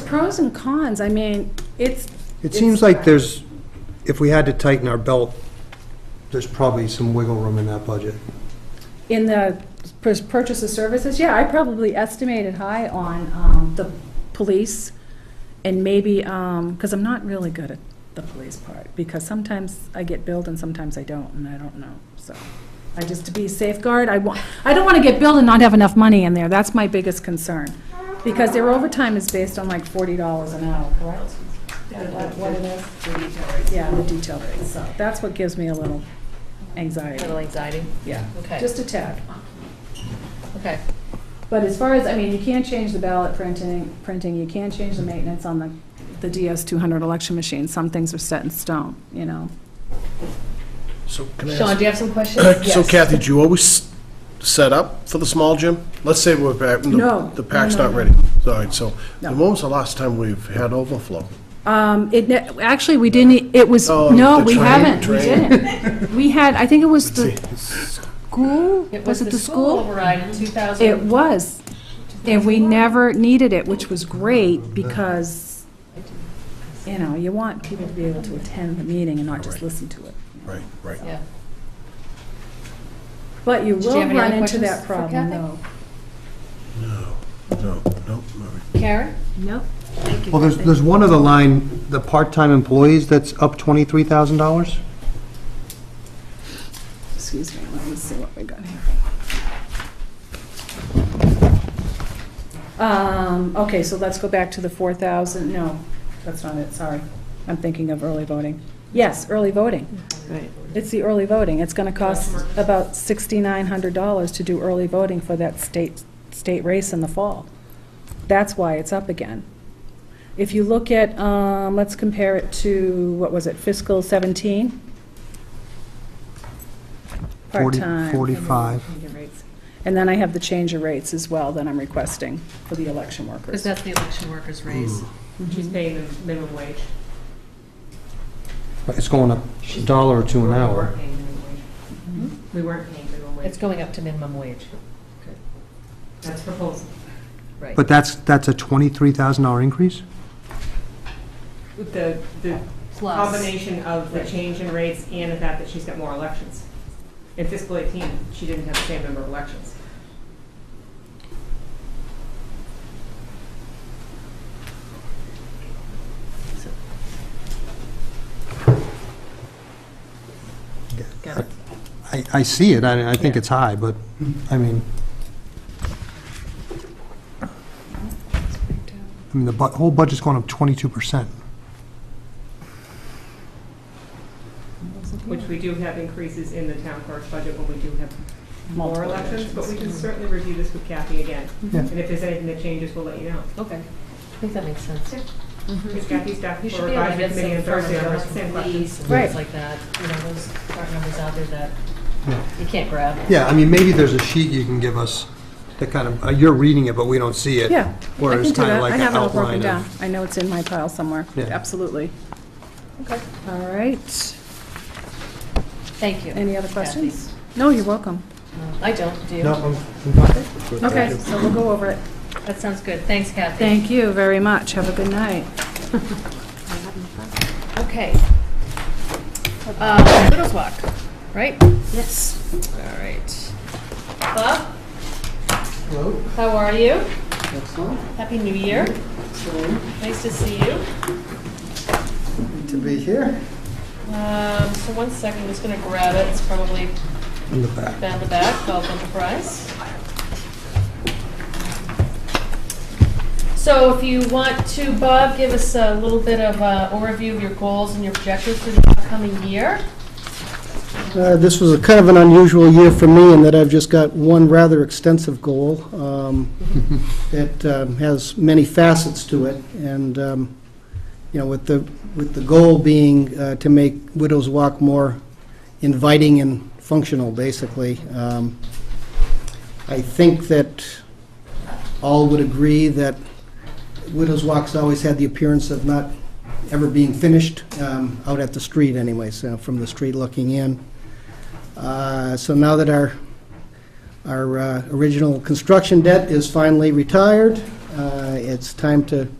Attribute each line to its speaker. Speaker 1: pros and cons. I mean, it's,
Speaker 2: It seems like there's, if we had to tighten our belt, there's probably some wiggle room in that budget.
Speaker 1: in the pur- purchase of services, yeah, I probably estimated high on um, the police and maybe, because I'm not really good at the police part, because sometimes I get billed and sometimes I don't, and I don't know, so. I just, to be safeguard, I want, I don't want to get billed and not have enough money in there. That's my biggest concern. Because their overtime is based on like forty dollars an hour, correct? What what it is? Yeah, the detail rate, so that's what gives me a little anxiety,
Speaker 3: Little anxiety,
Speaker 1: yeah.
Speaker 3: okay,
Speaker 1: Just a tad.
Speaker 3: okay.
Speaker 1: But as far as, I mean, you can't change the ballot printing, printing, you can't change the maintenance on the, the DS two hundred election machine. Some things are set in stone, you know?
Speaker 4: So can I
Speaker 3: Sean, do
Speaker 4: ask?
Speaker 3: you have some
Speaker 2: Uh,
Speaker 3: questions?
Speaker 4: So
Speaker 3: Yes.
Speaker 4: Kathy, do you always set up for the small gym? Let's say we're back,
Speaker 1: No.
Speaker 4: the- the pack's
Speaker 1: No, no,
Speaker 4: not
Speaker 1: no.
Speaker 4: ready. All right, so
Speaker 1: No.
Speaker 4: when was the last time we've had overflow?
Speaker 1: Um, it, ne- actually, we didn't, it was,
Speaker 4: Oh,
Speaker 1: no,
Speaker 4: the
Speaker 1: we
Speaker 4: train-
Speaker 1: haven't, we
Speaker 4: train.
Speaker 1: didn't. We had, I think it was the
Speaker 4: See,
Speaker 1: school,
Speaker 3: It
Speaker 1: was it the school?
Speaker 3: override in
Speaker 1: It
Speaker 3: 2000.
Speaker 1: was, and we never needed it, which was great, because, you know, you want people to be able to attend the meeting and not just listen to it.
Speaker 4: Right, right.
Speaker 3: Yeah.
Speaker 1: But you
Speaker 3: Did you
Speaker 1: will
Speaker 3: have any
Speaker 1: run
Speaker 3: other
Speaker 1: into
Speaker 3: questions
Speaker 1: that
Speaker 3: for
Speaker 1: problem,
Speaker 3: Kathy?
Speaker 1: though.
Speaker 4: No, no, no. no.
Speaker 3: Karen?
Speaker 1: Nope.
Speaker 2: Well, there's, there's one other line, the part-time employees, that's up twenty-three thousand dollars?
Speaker 1: Excuse me, let me see what we got here. Um, okay, so let's go back to the 4,000, no, that's not it, sorry. I'm thinking of early voting. Yes, early voting.
Speaker 3: Right.
Speaker 1: It's the early voting. It's going to cost about $6,900 to do early voting for that state, state race in the fall. That's why it's up again. If you look at, um, let's compare it to, what was it, fiscal 17?
Speaker 2: Forty-
Speaker 1: Part-time.
Speaker 2: Forty-five.
Speaker 1: And then I have the change of rates as well that I'm requesting for the election
Speaker 3: Because
Speaker 1: workers.
Speaker 3: that's the election
Speaker 2: Mm.
Speaker 3: workers' raise.
Speaker 1: Mm-hmm.
Speaker 3: She's paying the minimum wage.
Speaker 2: It's going up a dollar or two an hour.
Speaker 5: We weren't paying minimum
Speaker 3: It's going up to minimum wage.
Speaker 5: That's proposal.
Speaker 3: Right.
Speaker 2: But that's, that's a twenty-three thousand dollar increase?
Speaker 5: With the, the combination of the change in rates and the fact that she's got more elections. In fiscal 18, she didn't have the same number of elections.
Speaker 3: Got it.
Speaker 2: I, I see it, I, I think it's high, but, I mean, I mean, the bu, whole budget's going up twenty-two percent.
Speaker 3: Mm-hmm.
Speaker 5: Which we do have increases in the town clerk's budget when we do have more elections, but we can certainly review this with Kathy again.
Speaker 3: Mm-hmm.
Speaker 2: Yeah.
Speaker 5: And if there's anything that changes, we'll let you know.
Speaker 3: Okay. I think that makes sense.
Speaker 5: Because Kathy's staff
Speaker 3: You
Speaker 5: for
Speaker 3: should be able to
Speaker 5: advisory
Speaker 3: get
Speaker 5: committee
Speaker 3: some
Speaker 5: on
Speaker 3: firm
Speaker 5: Thursday, I'll
Speaker 3: numbers
Speaker 5: ask the same
Speaker 3: from
Speaker 5: questions.
Speaker 3: police and
Speaker 1: Right.
Speaker 3: things like that. You know, those part numbers out there that
Speaker 2: Yeah.
Speaker 3: you can't grab.
Speaker 2: Yeah, I mean, maybe there's a sheet you can give us that kind of, uh, you're reading it, but we don't see it.
Speaker 1: Yeah, I
Speaker 2: Or
Speaker 1: can
Speaker 2: it's
Speaker 1: do
Speaker 2: kind
Speaker 1: that.
Speaker 2: of
Speaker 1: I
Speaker 2: like an
Speaker 1: have it all broken
Speaker 2: outline
Speaker 1: down.
Speaker 2: of.
Speaker 1: I know it's in my pile somewhere,
Speaker 2: Yeah.
Speaker 1: absolutely.
Speaker 3: Okay.
Speaker 1: All right.
Speaker 3: Thank you.
Speaker 1: Any other
Speaker 3: Kathy.
Speaker 1: questions? No, you're welcome.
Speaker 3: No, I don't, do you?
Speaker 2: No, I'm- I'm fine.
Speaker 1: Okay, so we'll go over it.
Speaker 3: That sounds good. Thanks, Kathy.
Speaker 1: Thank you very much. Have a good night.
Speaker 3: Okay. Uh, Widows Walk, right?
Speaker 1: Yes.
Speaker 3: All right. Bob? Hello. How are you? Excellent. Happy New Year. Nice to see you.
Speaker 6: to be here.
Speaker 3: Um, so one second, I'm just gonna grab it, it's probably
Speaker 2: In the back.
Speaker 3: down the back, Gulf Enterprise. So if you want to, Bob, give us a little bit of a overview of your goals and your objectives for the upcoming year.
Speaker 6: Uh, This was a kind of an unusual year for me in that I've just got one rather extensive goal um, that um, has many facets to it, and, um, you know, with the, with the goal being uh, to make Widows Walk more inviting and functional, basically. Um, I think that all would agree that Widows Walk's always had the appearance of not ever being finished, um, out at the street anyways, uh, from the street looking in. Uh, So now that our, our uh, original construction debt is finally retired, uh, it's time to